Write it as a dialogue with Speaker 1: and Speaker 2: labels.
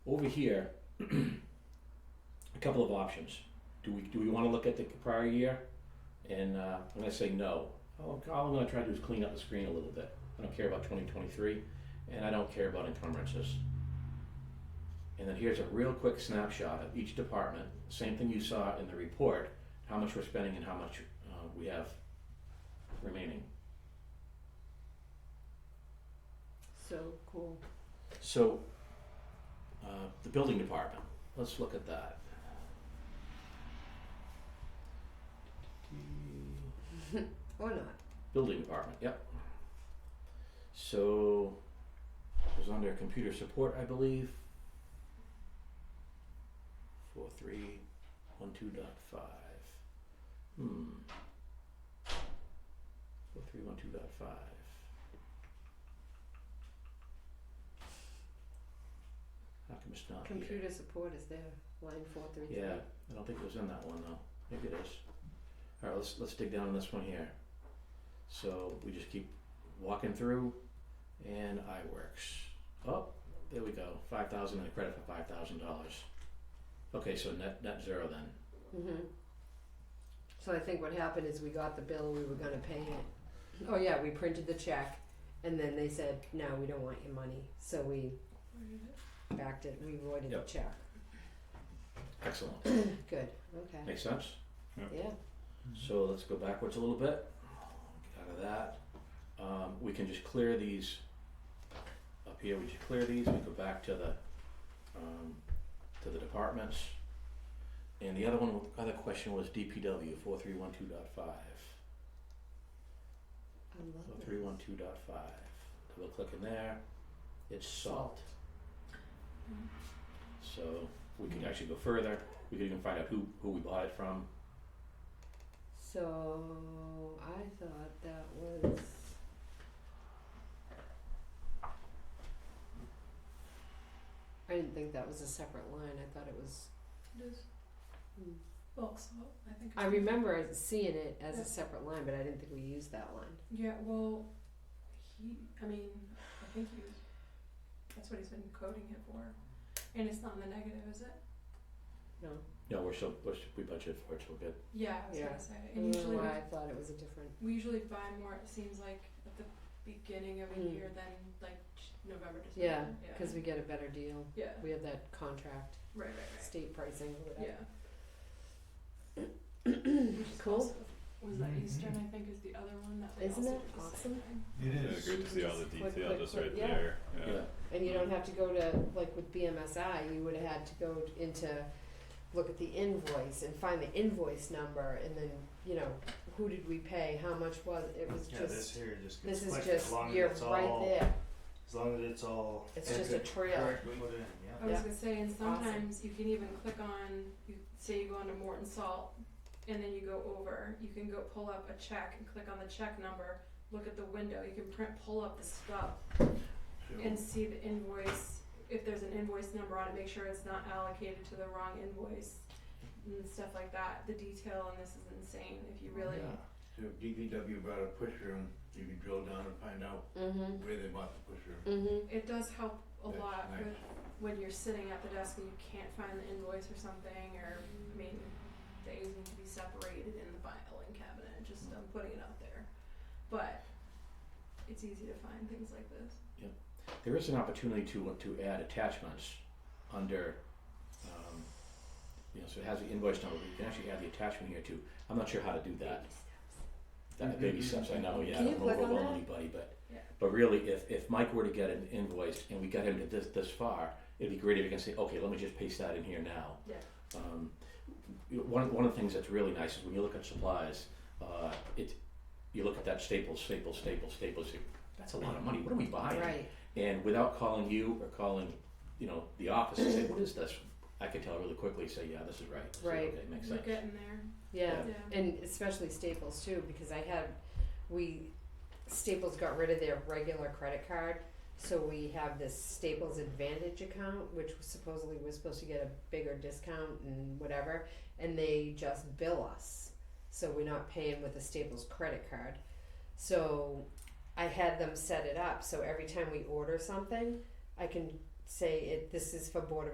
Speaker 1: Over here, a couple of options. Do we, do we wanna look at the prior year? And, uh, I'm gonna say no. All, all I'm gonna try to do is clean up the screen a little bit. I don't care about twenty twenty-three, and I don't care about encumbrances. And then here's a real quick snapshot of each department, same thing you saw in the report, how much we're spending and how much, uh, we have remaining.
Speaker 2: So cool.
Speaker 1: So, uh, the building department, let's look at that.
Speaker 2: Or not.
Speaker 1: Building department, yep. So, it was under computer support, I believe. Four, three, one, two dot five. Hmm. Four, three, one, two dot five. How come it's not here?
Speaker 2: Computer support is there, line four three three.
Speaker 1: Yeah, I don't think it was in that one though. Maybe it is. Alright, let's let's dig down on this one here. So we just keep walking through and iWorks. Oh, there we go. Five thousand and a credit for five thousand dollars. Okay, so net net zero then.
Speaker 2: Mm-hmm. So I think what happened is we got the bill, we were gonna pay it. Oh yeah, we printed the check and then they said, no, we don't want your money, so we backed it, we voided the
Speaker 1: Yep.
Speaker 2: check.
Speaker 1: Excellent.
Speaker 2: Good, okay,
Speaker 1: Makes sense?
Speaker 2: yeah,
Speaker 1: So let's go backwards a little bit. Get out of that. Um, we can just clear these up here. We just clear these. We go back to the um, to the departments. And the other one, other question was DPW four three one two dot five.
Speaker 2: I love
Speaker 1: Four
Speaker 2: it.
Speaker 1: three one two dot five. Double click in there. It's salt. So we could actually go further. We could even find out who who we bought it from.
Speaker 2: So I thought that was. I didn't think that was a separate line, I thought it was,
Speaker 3: It is
Speaker 2: Hmm.
Speaker 3: bulk salt, I think.
Speaker 2: I remember seeing it as
Speaker 3: Hmm.
Speaker 2: a
Speaker 3: Yeah.
Speaker 2: separate line, but I didn't think we used that line.
Speaker 3: Yeah, well, he, I mean, I think he, that's what he's been coding it for. And it's not in the negative, is it?
Speaker 2: No,
Speaker 1: No, we're so we're, we budgeted for it, so we're good.
Speaker 3: Yeah, I was
Speaker 2: Yeah.
Speaker 3: gonna say,
Speaker 2: I
Speaker 3: and
Speaker 2: don't know
Speaker 3: usually we,
Speaker 2: why I thought it was a different,
Speaker 3: we usually buy more, it seems like, at the beginning of a
Speaker 2: Mm.
Speaker 3: year than like j- November,
Speaker 2: yeah,
Speaker 3: December. Yeah,
Speaker 2: cause we get a better deal,
Speaker 3: Yeah,
Speaker 2: we have that contract,
Speaker 3: right, right, right,
Speaker 2: state pricing,
Speaker 3: yeah.
Speaker 2: whatever.
Speaker 3: Which is
Speaker 2: Cool. Mm-hmm.
Speaker 3: also- Was that
Speaker 4: Mhm.
Speaker 3: Eastern, I think, is the other one that they
Speaker 2: Isn't
Speaker 3: also
Speaker 2: it
Speaker 3: did the same
Speaker 2: awesome?
Speaker 3: thing.
Speaker 4: It
Speaker 5: Yeah,
Speaker 4: is.
Speaker 5: great to see all the
Speaker 2: Click,
Speaker 5: detail
Speaker 2: click,
Speaker 5: just
Speaker 2: click,
Speaker 5: right
Speaker 2: yeah.
Speaker 5: there. Yeah.
Speaker 2: And you don't have to go to, like with BMSI, you would have had to go into, look at the invoice and find the invoice number and then, you know, who did we pay, how much was, it was
Speaker 4: Yeah, this
Speaker 2: just,
Speaker 4: here just gets
Speaker 2: this is
Speaker 4: clicked
Speaker 2: just,
Speaker 4: as long
Speaker 2: you're
Speaker 4: as it's
Speaker 2: right
Speaker 4: all
Speaker 2: there,
Speaker 4: as long as it's all
Speaker 2: it's just a
Speaker 4: correct-
Speaker 2: trail.
Speaker 4: correctly put in.
Speaker 3: I
Speaker 4: Yeah.
Speaker 3: was
Speaker 2: Yeah.
Speaker 3: gonna say, and
Speaker 2: Awesome.
Speaker 3: sometimes you can even click on, you say you go onto Morton Salt, and then you go over, you can go pull up a check and click on the check number, look at the window, you can print, pull up the stuff and see the invoice, if there's an invoice number on it, make sure it's not allocated to the wrong invoice and stuff like that, the detail on this is insane, if you really,
Speaker 6: So if DPW brought a push room, you can drill down and find out
Speaker 2: Mm-hmm,
Speaker 6: where they bought the push room.
Speaker 2: mm-hmm.
Speaker 3: it does help a
Speaker 6: That's
Speaker 3: lot
Speaker 6: nice.
Speaker 3: with, when you're sitting at the desk and you can't find the invoice or something, or, I mean, things need to be separated in the filing cabinet, just I'm putting it out there. But it's easy to find things like this.
Speaker 1: There is an opportunity to, to add attachments under, um, you know, so it has the invoice number, but you can actually add the attachment here too. I'm not sure how to do that. That baby steps, I know, yeah, I
Speaker 2: Can you
Speaker 1: don't
Speaker 2: click on
Speaker 1: overwhelm
Speaker 2: that?
Speaker 1: anybody, but,
Speaker 3: Yeah.
Speaker 1: but really, if, if Mike were to get an invoice and we got him to this, this far, it'd be great if he can say, okay, let me just paste that in here now.
Speaker 3: Yeah.
Speaker 1: Um, you know, one, one of the things that's really nice is when you look at supplies, uh, it, you look at that Staples, Staples, Staples, Staples, that's a lot of money, what are we buying?
Speaker 2: Right,
Speaker 1: And without calling you or calling, you know, the office and say, what is this? I could tell really quickly, say, yeah, this is right. I said,
Speaker 2: Right.
Speaker 1: Okay, makes
Speaker 3: You're
Speaker 1: sense.
Speaker 3: getting there,
Speaker 2: yeah,
Speaker 1: Yeah.
Speaker 3: yeah.
Speaker 2: and especially Staples too, because I had, we, Staples got rid of their regular credit card, so we have this Staples Advantage account, which supposedly we're supposed to get a bigger discount and whatever, and they just bill us, so we're not paying with a Staples credit card. So I had them set it up, so every time we order something, I can say it, this is for Board of